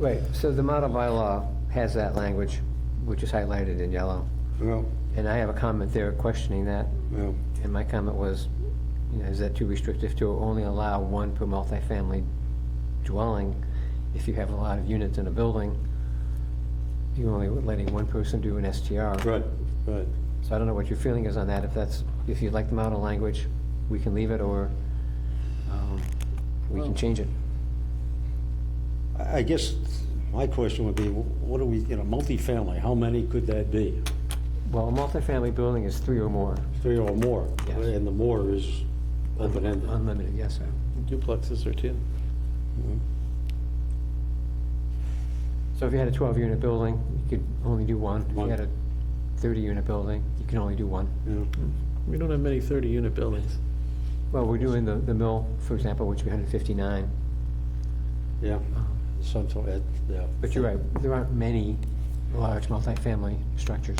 Right, so the model bylaw has that language, which is highlighted in yellow. Well, And I have a comment there questioning that, well, and my comment was, you know, is that too restrictive to only allow one per multifamily dwelling? If you have a lot of units in a building, you're only letting one person do an STR. right, right. So I don't know what your feeling is on that, if that's, if you like the model language, we can leave it, or um, we can change it. I I guess my question would be, wh- what do we, you know, multifamily, how many could that be? Well, a multifamily building is three or more, Three or more? Yes. And the more is open-ended. unlimited, yes, sir. Duplexes are 10. So if you had a 12-unit building, you could only do one. If you had a 30-unit building, you can only do one. Yeah. We don't have many 30-unit buildings. Well, we're doing the, the mill, for example, which would be 159. Yeah, some sort of, yeah. But you're right, there aren't many large multifamily structures.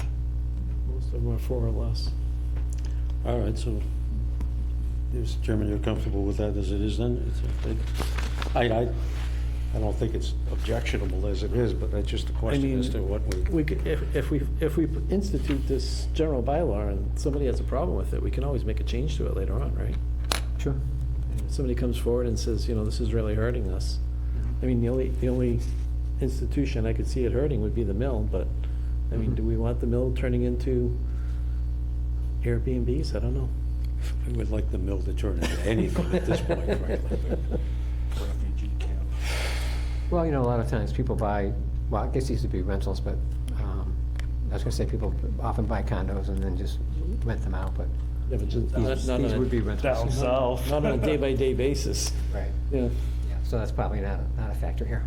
Most of them are four or less. All right, so, Mr. Chairman, you're comfortable with that as it is then? It's a- it- I, I, I don't think it's objectionable as it is, but that's just a question mean- as to what we, We could, if, if we, if we institute this general bylaw and somebody has a problem with it, we can always make a change to it later on, right? Sure. If somebody comes forward and says, you know, this is really hurting us. Mm-hmm. I mean, the only, the only institution I could see it hurting would be the mill, but, I mean, Mm-hmm. do we want the mill turning into Airbnbs? I don't know. we would like the mill to turn into anything at this point, frankly. Refugee camp. Well, you know, a lot of times people buy, well, I guess these would be rentals, but um, I was going to say people often buy condos and then just rent them out, but Yeah, but just- not- these not these on a- would be rentals. south. Not on a day-by-day basis. Right, Yeah, yeah, so that's probably not, a- not a factor here.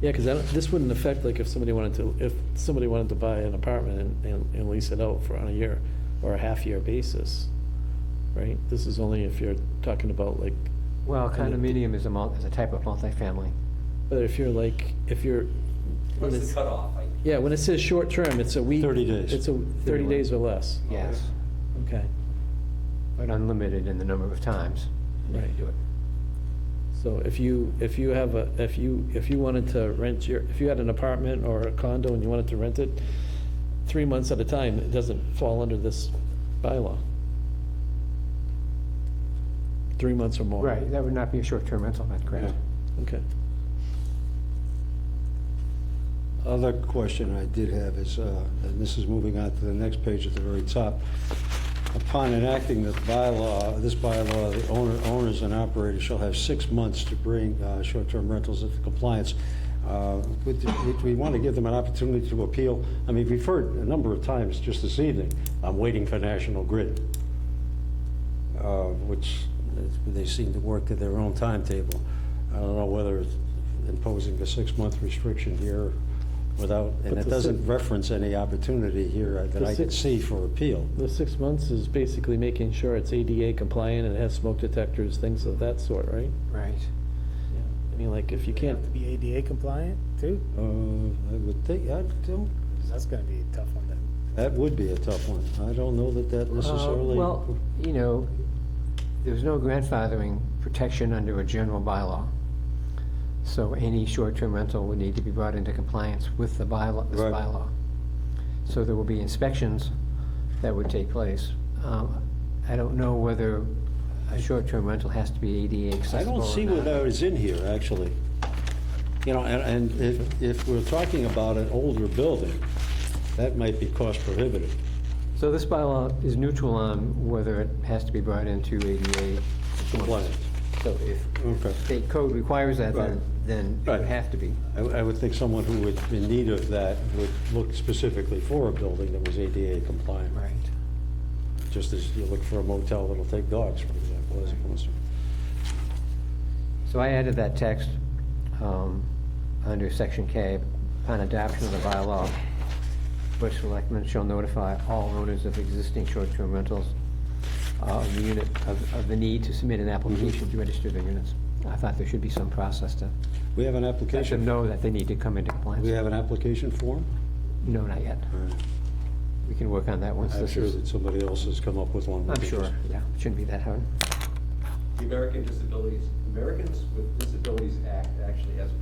yeah, because this wouldn't affect, like, if somebody wanted to, if somebody wanted to buy an apartment and- and, and lease it out for on a year or a half-year basis, right? This is only if you're talking about like, Well, And it- condominium is a, mul- is a type of multifamily. but if you're like, if you're. when What's it's- the cutoff? Like, Yeah, when it says short-term, it's a week. 30 days. It's a, thirty days or less, Yes, okay, but unlimited in the number of times you right. can do it. So if you, if you have a, if you, if you wanted to rent your, if you had an apartment or a condo and you wanted to rent it, three months at a time, it doesn't fall under this bylaw. Three months or more. Right, that would not be a short-term rental, that's correct. Okay. Other question I did have is, uh, and this is moving on to the next page at the very top. Upon enacting this bylaw, this bylaw, the owner, owners and operators shall have six months to bring uh, short-term rentals into compliance. Uh, Would would we want to give them an opportunity to appeal? I mean, we've heard a number of times just this evening, I'm waiting for National Grid, uh, which they seem to work at their own timetable. I don't know whether it's imposing a six-month restriction here without, But and it the doesn't six- reference any opportunity here that The I could six- see for appeal. The six months is basically making sure it's ADA compliant and it has smoke detectors, things of that sort, right? Right. I mean, like, if you can't, have to be ADA compliant too, Uh, I would think, I don't, 'Cause that's gonna be a tough one then. that would be a tough one. I don't know that that Uh, necessarily. Well, you know, there's no grandfathering protection under a general bylaw. So any short-term rental would need to be brought into compliance with the bylaw, this Right. bylaw. So there will be inspections that would take place. Um, I don't know whether a short-term rental has to be ADA I accessible or don't not. see where that is in here, actually. You know, and, and if, if we're talking about an older building, that might be cost prohibitive. So this bylaw is neutral on whether it has to be brought into ADA. Compliance. So if Okay. state code requires that, then, Right. then it would Right. have to be. I, I would think someone who would, in need of that, would look specifically for a building that was ADA compliant. Right. Just as you look for a motel that'll take dogs, for example, as opposed to. So I added that text um, under section K, upon adoption of the bylaw, Board of Selectmen shall notify all owners of existing short-term rentals uh, of the unit, of of the need to submit an application to register their units. I thought there should be some process to We have an let them application, know that they need to come into we compliance. have an application form? No, not yet. We can work on that once I'm this sure is, that somebody else has come up with one. I'm sure, yeah, it shouldn't be that hard. The American Disabilities, Amer- Americans with Disabilities Act actually has a